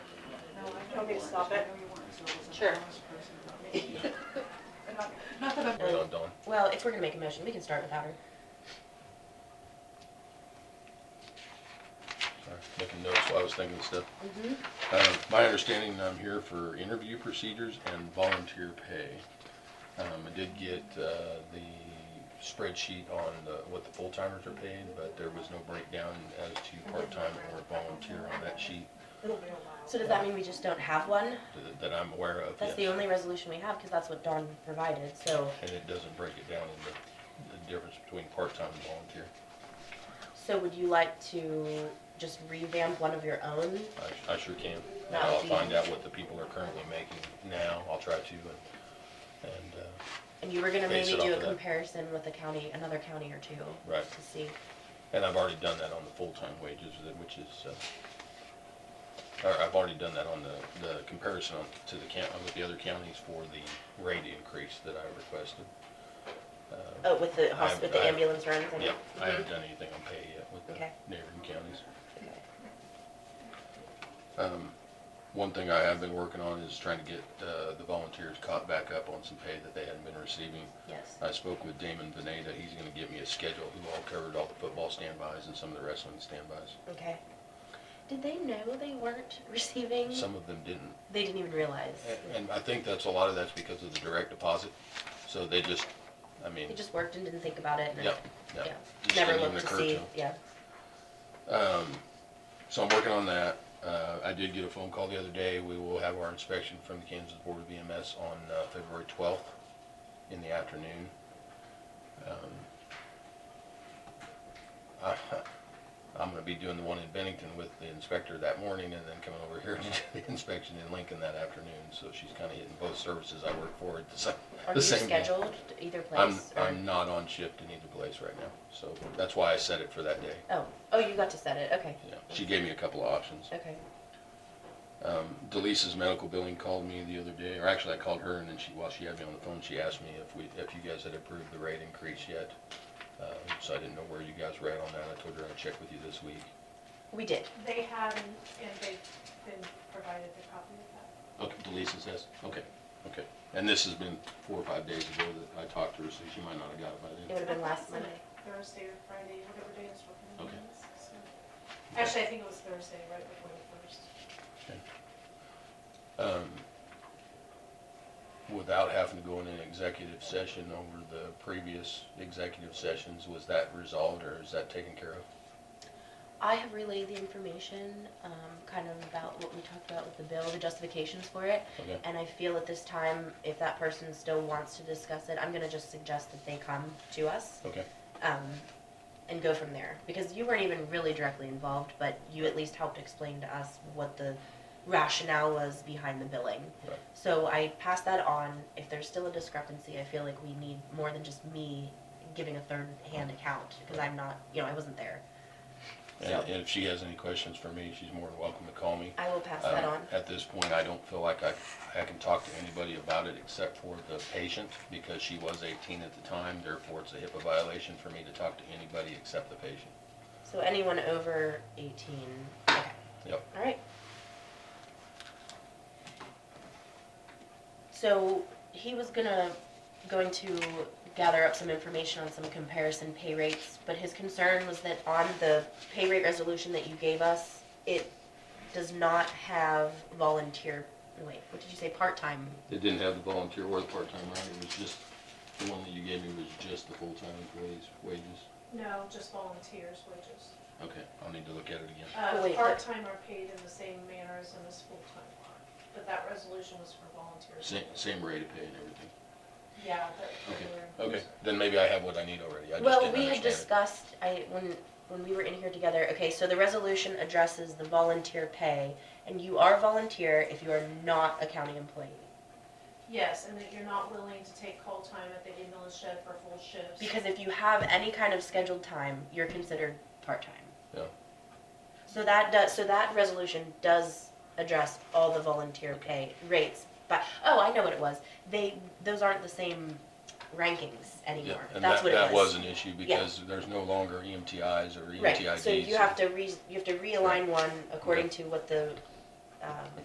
okay to stop it? Sure. Not that I'm. Here you go, Dawn. Well, if we're gonna make a motion, we can start without her. Sorry, Making notes while I was thinking of stuff. Mm-hmm. Uh, My understanding, I'm here for interview procedures and volunteer pay. Um, I did get uh, the spreadsheet on the- what the full-timers are paid, but there was no breakdown as to part-time or volunteer on that sheet So does that mean we just don't have one? that- that I'm aware of. That's the yes. only resolution we have, because that's what Dawn provided, so, And it doesn't break it down into the difference between part-time and volunteer. so would you like to just revamp one of your own? I- I sure can. And That would I'll be- find out what the people are currently making now. I'll try to and, and, uh, And you were gonna Base maybe it off do a of that. comparison with a county, another county or two, right. to see. And I've already done that on the full-time wages, that- which is, uh, or I've already done that on the, the comparison on- to the count, with the other counties for the rate increase that I requested. Uh, Oh, with the hos, I've- with the I've- ambulance runs and. Yep, I Mhm. haven't done anything on pay yet with the Okay. neighboring counties. Okay. Um, One thing I have been working on is trying to get uh, the volunteers caught back up on some pay that they hadn't been receiving. Yes, I spoke with Damon Veneta, he's gonna give me a schedule, who all covered all the football standbys and some of the wrestling standbys. okay. Did they know they weren't receiving? Some Uh, of them didn't, They didn't even realize. And- And I think that's, a lot of that's because of the direct deposit, so they just, I mean, They just worked and didn't think about it and. yep, Yeah, yep. Just never didn't even looked to occur see, them. yeah. Um, so I'm working on that, uh, I did get a phone call the other day, we will have our inspection from the Kansas Board of EMS on, uh, February twelfth in the afternoon. Um, I- I'm gonna be doing the one in Bennington with the inspector that morning and then coming over here to do the inspection in Lincoln that afternoon, so she's kinda hitting both services I work for at the same, Are you the same day. scheduled to either I'm, place? or- I'm not on shift in either place right now, so that's why I set it for that day. Oh, oh, you got to set it, okay, Yeah, she gave me a couple of options. okay. Um, Delisa's medical billing called me the other day, or actually I called her and then she, while she had me on the phone, she asked me if we, if you guys had approved the rate increase yet. Um, so I didn't know where you guys were at on that. I told her I'd check with you this week. We did, They have, and and they've been provided a copy of that. Okay, Delisa says, okay, okay. And this has been four or five days ago that I talked to her, so she might not have got it by it then. would have been last Monday. Thursday or Friday, whatever day it's working. on Okay. is, so. Actually, I think it was Thursday, right before the first. um, without having to go in an executive session over the previous executive sessions, was that resolved or is that taken care of? I have relayed the information, um, kind of about what we talked about with the bill, the justifications for it. Okay. And I feel at this time, if that person still wants to discuss it, I'm gonna just suggest that they come to us, Okay, um, and go from there. Because you weren't even really directly involved, but you at least helped explain to us what the rationale was behind the billing. right, So I pass that on. If there's still a discrepancy, I feel like we need more than just me giving a third-hand account, because I'm not, you know, I wasn't there. and So and if she has any questions for me, she's more than welcome to call me. I will pass that Um, on. At this point, I don't feel like I, I can talk to anybody about it except for the patient, because she was eighteen at the time, therefore it's a HIPAA violation for me to talk to anybody except the patient. So anyone over eighteen, okay, Yep, all right. So he was gonna, going to gather up some information on some comparison pay rates, but his concern was that on the pay rate resolution that you gave us, it does not have volunteer, wait, what did you say, part-time? it didn't have the volunteer or the part-time, right, it was just, the one that you gave me was just the full-time employees' wages. No, just volunteers wages. Okay, I'll need to look at it again. Oh, Uh, wait, but- part-time are paid in the same manner as in this full-time are, but that resolution was for volunteers. Same, same rate of pay and everything. Yeah, but. Okay, they were- okay, then maybe I have what I need already, I just Well, didn't we had understand it. discussed, I, when, when we were in here together, okay, so the resolution addresses the volunteer pay, and you are volunteer if you are not a county employee. Yes, and that you're not willing to take call time at the ambulance shed for full shifts. Because if you have any kind of scheduled time, you're considered part-time. Yeah. So that does, so that resolution does address all the volunteer pay rates, but, oh, I know what it was. They, those aren't the same rankings Yeah, anymore. and That's that, what it was. that was an issue because there's no longer E EMTIs or EMTIDs. Right, so you have to re, you have to realign one according to what the, um,